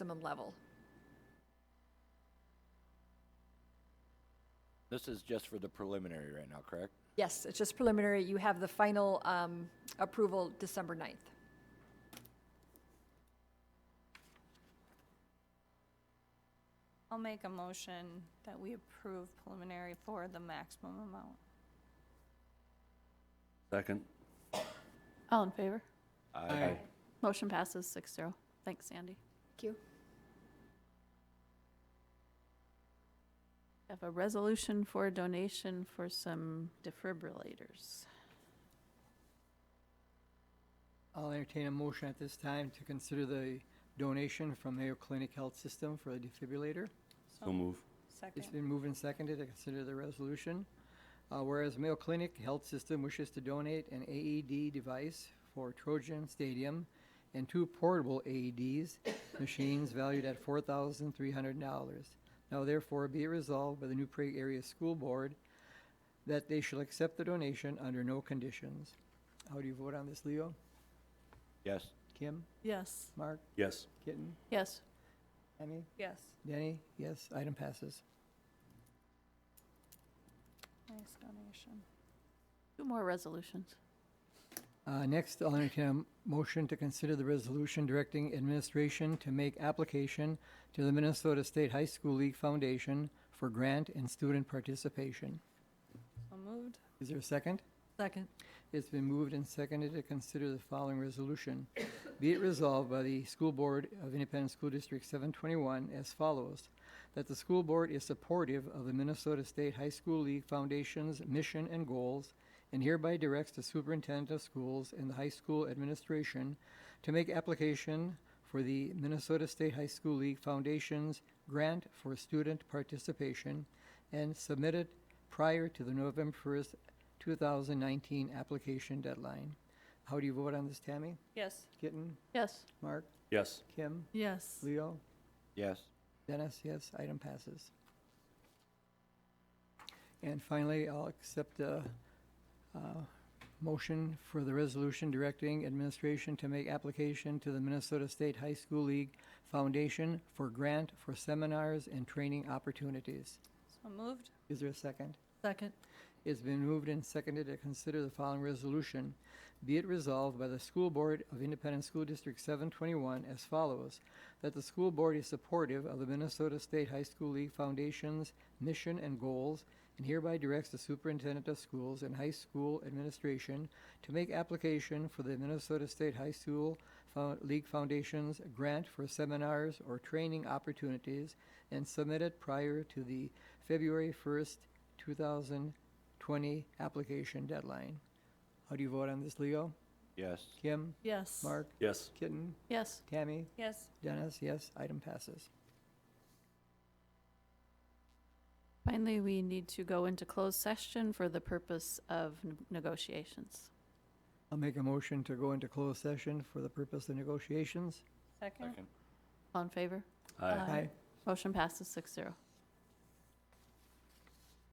minimum level. This is just for the preliminary right now, correct? Yes, it's just preliminary. You have the final um, approval December 9th. I'll make a motion that we approve preliminary for the maximum amount. Second. All in favor? Aye. Motion passes six zero. Thanks, Sandy. Thank you. Have a resolution for a donation for some defibrillators. I'll entertain a motion at this time to consider the donation from Mayo Clinic Health System for a defibrillator. So move. Second. It's been moved and seconded to consider the resolution. Uh, Whereas Mayo Clinic Health System wishes to donate an AED device for Trojan Stadium and two portable AEDs, machines valued at four thousand three hundred dollars. Now therefore be it resolved by the New Prague Area School Board that they shall accept the donation under no conditions. How do you vote on this, Leo? Yes. Kim? Yes. Mark? Yes. Kitten? Yes. Emmy? Yes. Denny? Yes, item passes. Nice donation. Two more resolutions. Uh, Next, I'll entertain a m- motion to consider the resolution directing administration to make application to the Minnesota State High School League Foundation for grant and student participation. So moved. Is there a second? Second. It's been moved and seconded to consider the following resolution. Be it resolved by the School Board of Independent School District 721 as follows, that the school board is supportive of the Minnesota State High School League Foundation's mission and goals, and hereby directs the superintendent of schools and the high school administration to make application for the Minnesota State High School League Foundation's grant for student participation and submit it prior to the November 1st 2019 application deadline. How do you vote on this, Tammy? Yes. Kitten? Yes. Mark? Yes. Kim? Yes. Leo? Yes. Dennis, yes, item passes. And finally, I'll accept a uh, motion for the resolution directing administration to make application to the Minnesota State High School League Foundation for grant for seminars and training opportunities. So moved. Is there a second? Second. It's been moved and seconded to consider the following resolution. Be it resolved by the School Board of Independent School District 721 as follows, that the school board is supportive of the Minnesota State High School League Foundation's mission and goals, and hereby directs the superintendent of schools and high school administration to make application for the Minnesota State High School Fo- League Foundation's grant for seminars or training opportunities, and submit it prior to the February 1st, 2000 20 application deadline. How do you vote on this, Leo? Yes. Kim? Yes. Mark? Yes. Kitten? Yes. Tammy? Yes. Dennis? Yes, item passes. Finally, we need to go into closed session for the purpose of n- negotiations. I'll make a motion to go into closed session for the purpose of negotiations. Second. All in favor? Aye. Motion passes six zero.